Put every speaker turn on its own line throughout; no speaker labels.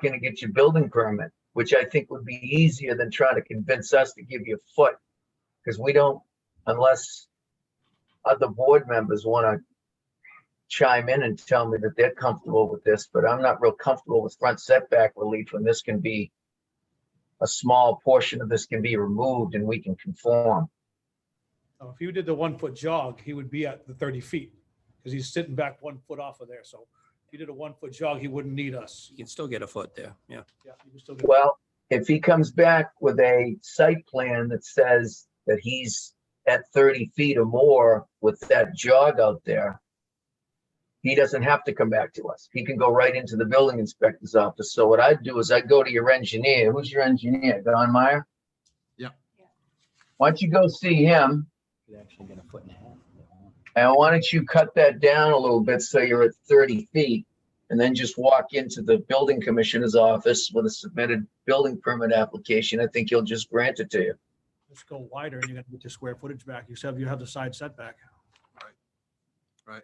going to get your building permit, which I think would be easier than trying to convince us to give you a foot. Because we don't, unless other board members want to chime in and tell me that they're comfortable with this, but I'm not real comfortable with front setback relief when this can be a small portion of this can be removed and we can conform.
Now, If you did the one foot jog, he would be at the thirty feet because he's sitting back one foot off of there. So if you did a one foot jog, he wouldn't need us.
You can still get a foot there, yeah.
Yeah, you can still get-
Well, if he comes back with a site plan that says that he's at thirty feet or more with that jog out there, he doesn't have to come back to us. He can go right into the building inspector's office. So what I'd do is I'd go to your engineer. Who's your engineer? Don Meyer?
Yeah.
Why don't you go see him?
could actually get a foot and a half.
And why don't you cut that down a little bit so you're at thirty feet? And then just walk into the building commissioner's office with a submitted building permit application. I think he'll just grant it to you.
Just go wider and you're gonna get your square footage back. You said you have the side setback.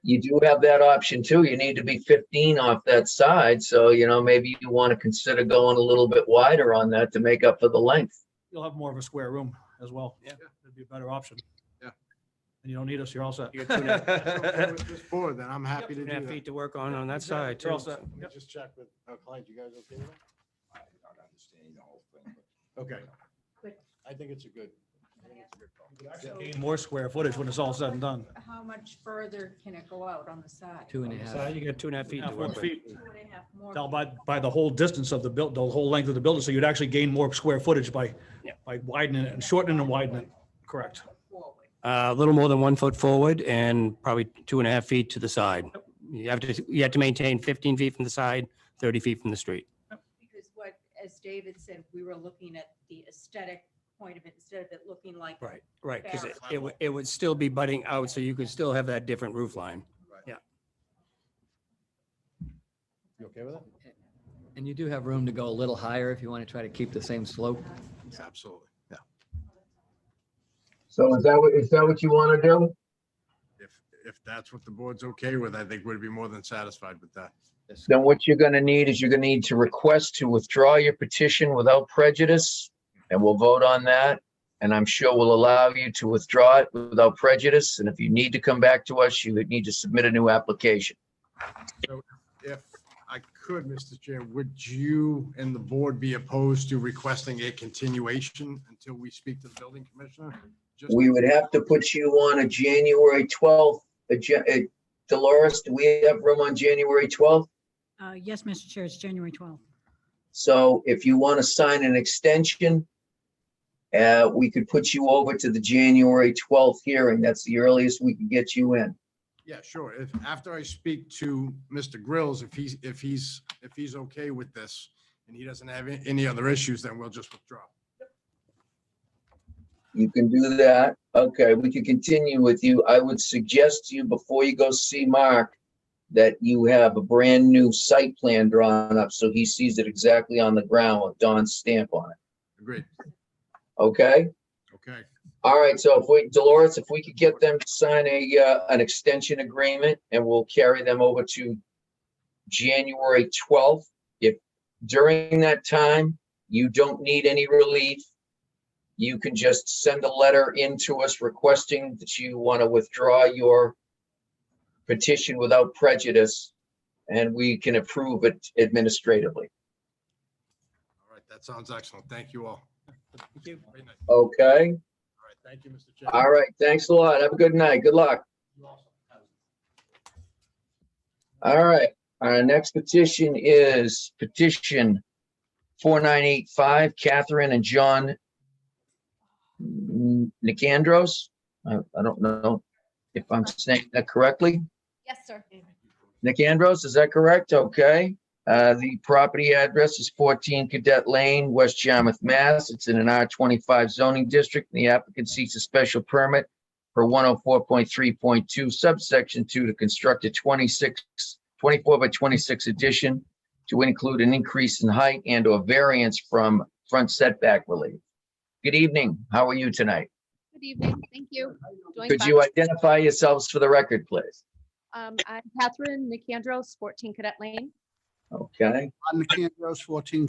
You do have that option too. You need to be fifteen off that side, so you know, maybe you want to consider going a little bit wider on that to make up for the length.
You'll have more of a square room as well.
Yeah.
It'd be a better option.
Yeah.
And you don't need us. You're all set.
You got two and a
Okay,
half-
with This board, then I'm happy
Yep,
two
to
and
do
a half
that.
feet to work on, on that
Yeah,
side
you're all
too.
set.
so-
Let me just check with our client. You guys okay with that?
I don't understand the whole thing, but
Okay.
Good.
I think it's a good. I think it's a good call.
You could actually Gain more square footage when it's all said and done.
How much further can it go out on the side?
Two and a
So
half.
you got two and a half feet
Now,
to
four
work with.
feet,
Two and a half more.
now by, by the whole distance of the build, the whole length of the building. So you'd actually gain more square footage by,
Yeah.
by widening it and shortening and widening it. Correct.
Forward.
Uh, A little more than one foot forward and probably two and a half feet to the side. You have to, you have to maintain 15 feet from the side, 30 feet from the street.
Because what, as David said, we were looking at the aesthetic point of it instead of it looking like.
Right, right, because
Barrel.
it would, it would still be butting out, so you could still have that different roof line.
You okay with that?
And you do have room to go a little higher if you want to try to keep the same slope.
Yeah, absolutely. Yeah.
So is that what, is that what you want to do?
If, if that's what the board's okay with, I think we'd be more than satisfied with that.
Then what you're gonna need is you're gonna need to request to withdraw your petition without prejudice, and we'll vote on that. And I'm sure we'll allow you to withdraw it without prejudice, and if you need to come back to us, you would need to submit a new application.
If I could, Mr. Chair, would you and the board be opposed to requesting a continuation until we speak to the building commissioner? Just-
We would have to put you on a January twelfth, uh, Dolores, do we have room on January twelfth?
Uh, Yes, Mr. Chair, it's January 12th.
So if you want to sign an extension, uh, we could put you over to the January twelfth hearing. That's the earliest we can get you in.
Yeah, sure. If, after I speak to Mr. Grills, if he's, if he's, if he's okay with this and he doesn't have a- any other issues, then we'll just withdraw.
You can do that. Okay, we can continue with you. I would suggest to you before you go see Mark that you have a brand new site plan drawn up so he sees it exactly on the ground with Don's stamp on it.
Agreed.
Okay?
Okay.
All right, so if we, Dolores, if we could get them to sign a, uh, an extension agreement and we'll carry them over to January twelfth. If during that time, you don't need any relief, you can just send a letter in to us requesting that you want to withdraw your petition without prejudice, and we can approve it administratively,
All right. That sounds excellent. Thank you all. Thank you. All right.
okay?
Thank you, Mr. Chair.
All right, thanks a lot. Have a good night. Good luck. All right, our next petition is petition four nine eight five, Catherine and John Nicandros. I, I don't know if I'm saying that correctly.
Yes, sir.
Nicandros, is that correct? Okay. Uh, the property address is fourteen Cadet Lane, West Yarmouth, Mass. It's in an R twenty-five zoning district. and The applicant seeks a special permit for one oh four point three point two subsection two to construct a 26 24 by twenty-six addition to include an increase in height and or variance from front setback relief. Good evening. How are you tonight?
Good evening, thank you. Doing
Could
fine.
you identify yourselves for the record, please?
Um, I'm Catherine Nicandros, 14 Cadet Lane.
Okay.
on the Camp Rose 14